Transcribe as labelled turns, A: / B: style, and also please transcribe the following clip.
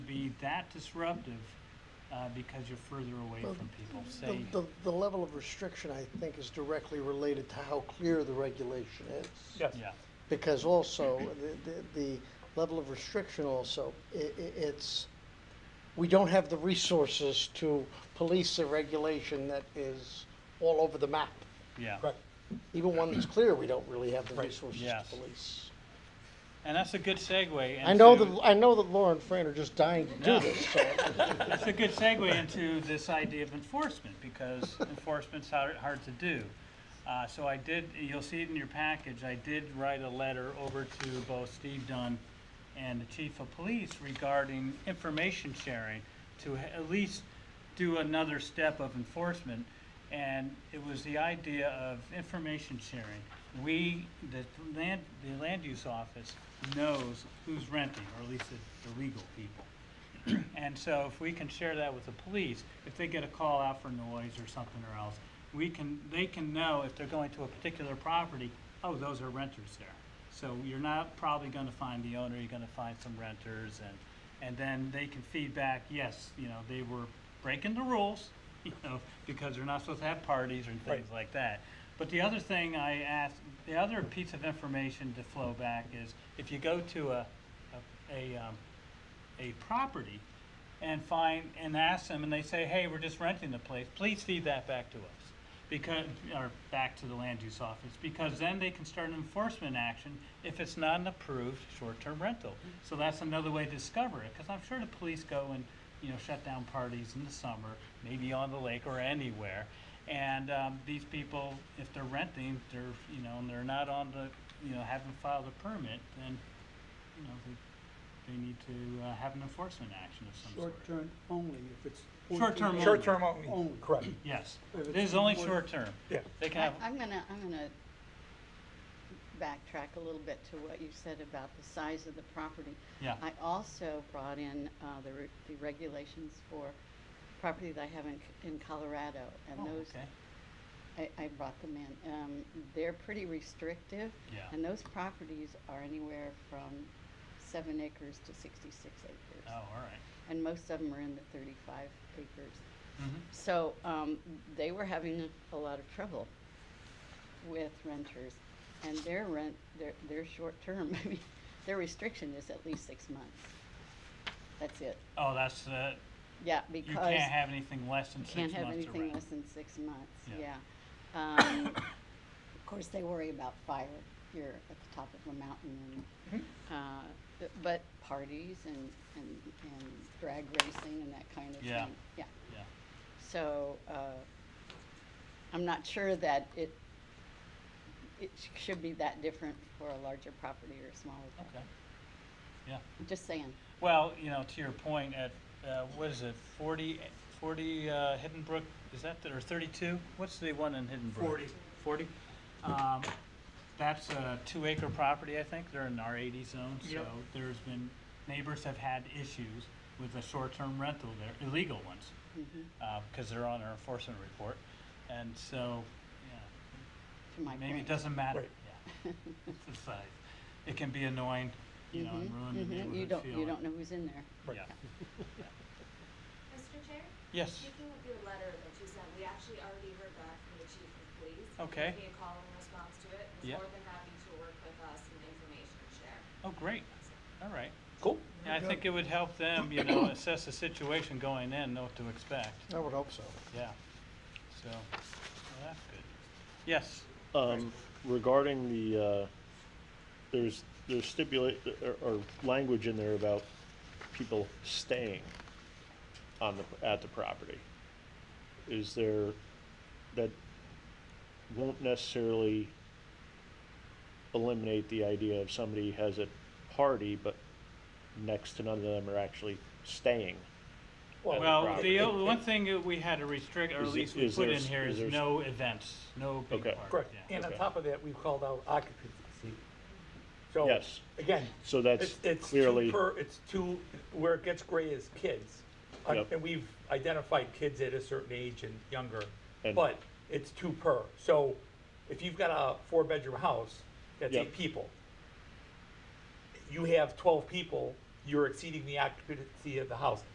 A: be that disruptive uh, because you're further away
B: Well,
A: from people.
B: The,
A: Say,
B: the, the level of restriction, I think, is directly related to how clear the regulation is.
C: Yes.
A: yeah,
B: Because also, the, the, the level of restriction also, i- i- it's, we don't have the resources to police a regulation that is all over the map.
A: yeah.
C: Correct.
B: Even one that's clear, we don't really have the
C: Right.
B: resources to
A: Yes.
B: police.
A: And that's a good segue. Into,
B: I know that, I know that Laura and Fran are just dying to
A: Yeah.
B: do this, so.
A: That's a good segue into this idea of enforcement, because enforcement's hard, hard to do. Uh, so I did, you'll see it in your package, I did write a letter over to both Steve Dunn and the chief of police regarding information sharing to h- at least do another step of enforcement. And it was the idea of information sharing. We, the land, the land use office knows who's renting, or at least the, the legal people. And so if we can share that with the police, if they get a call out for noise or something or else, we can, they can know if they're going to a particular property, oh, those are renters there. So you're not probably gonna find the owner, you're gonna find some renters and, and then they can feed back, yes, you know, they were breaking the rules, you know, because they're not supposed to have parties or things
C: Right.
A: like that. But the other thing I asked, the other piece of information to flow back is if you go to a, a, a, um, a property and find, and ask them, and they say, hey, we're just renting the place, please feed that back to us. Because, or back to the land use office, because then they can start an enforcement action if it's not an approved short-term rental. So that's another way to discover it, because I'm sure the police go and, you know, shut down parties in the summer, maybe on the lake or anywhere. And, um, these people, if they're renting, they're, you know, and they're not on the, you know, haven't filed a permit, then, you know, they they need to uh, have an enforcement action of some sort.
D: Short-term only, if it's.
A: Short-term
D: 14
A: Short
C: Short-term only,
D: Only.
C: correct.
A: Yes,
D: If
A: this
D: it's
A: is only
D: more-
A: short term.
C: Yeah.
A: They can
E: I-
A: have,
E: I'm gonna, I'm gonna backtrack a little bit to what you said about the size of the property.
A: yeah,
E: I also brought in uh, the re- the regulations for property that I have in C- in Colorado,
A: Oh,
E: and those,
A: okay,
E: I I brought them in. Um, They're pretty restrictive,
A: yeah,
E: and those properties are anywhere from seven acres to 66
A: oh,
E: acres.
A: all right.
E: And most of them are in the 35 acres.
A: Mhm.
E: So um, they were having a lot of trouble with renters, and their rent, their their short term, I mean, their restriction is at least six months. That's it.
A: Oh, that's, uh,
E: Yeah,
A: you
E: because
A: can't have anything less than
E: you
A: six
E: can't
A: months
E: have
A: to
E: anything
A: rent.
E: less than six months.
A: Yeah.
E: Yeah. Um, of course, they worry about fire here at the top of a mountain, and,
A: Mm-hmm.
E: uh, th- but parties and, and and drag racing and that kind of
A: Yeah.
E: thing. Yeah.
A: Yeah.
E: So, uh, I'm not sure that it, it sh- should be that different for a larger property or a smaller property.
A: Okay.
E: Just saying.
A: Well, you know, to your point, at, uh, what is it, forty, forty, uh, Hidden Brook, is that, the- or thirty-two? What's the one in Hidden Brook? Forty. Forty? Um, that's a two acre property, I think, they're in our eighty zone, so there's been, neighbors have had issues with a short-term rental there, illegal ones. uh,
E: Mhm.
A: because they're on our enforcement report. And so, yeah,
E: To my
A: maybe it
E: point.
A: doesn't matter.
C: Right.
A: Yeah, It's the size. It can be annoying, you know, and
E: Mhm,
A: ruin the
E: mhm. You
A: neighborhood
E: don't, you
A: feeling.
E: don't know who's in there.
C: Right.
A: Yeah.
F: Mr. Chair,
A: Yes,
F: speaking of your letter that you sent, we actually already heard back from the chief of police. He
A: Okay.
F: Gave me a call in response to it. He's
A: Yeah.
F: more than happy to work with us and information share.
A: oh, great, all right.
C: Cool.
A: Yeah, I think it would help them, you know, assess the situation going in, know what to expect,
B: I would hope so.
A: yeah. So, well, that's good. Yes,
G: Um, regarding the, uh, there's, there's stipulate, or, or language in there about people staying on the, at the property. Is there, that won't necessarily eliminate the idea of somebody has a party, but next to none of them are actually staying. at
A: well,
G: property.
A: the o- one thing that we had to restrict, or at
G: Is-
A: least we
G: is
A: put
G: there
A: in
G: s-
A: here,
G: is
A: is
G: there s-
A: no events, no big
G: Okay.
A: parties.
C: Correct.
A: yeah.
C: And on
G: Okay.
C: top of that, we've called out occupancy. So,
G: Yes.
C: again,
G: So that's
C: it's, it's
G: clearly.
C: two per, it's two, where it gets gray is kids. Uh,
G: Yep.
C: And we've identified kids at a certain age and younger,
G: And-
C: but it's two per. So if you've got a four-bedroom house, that's
G: Yep.
C: eight people. You have twelve people you're exceeding the occupancy of the house.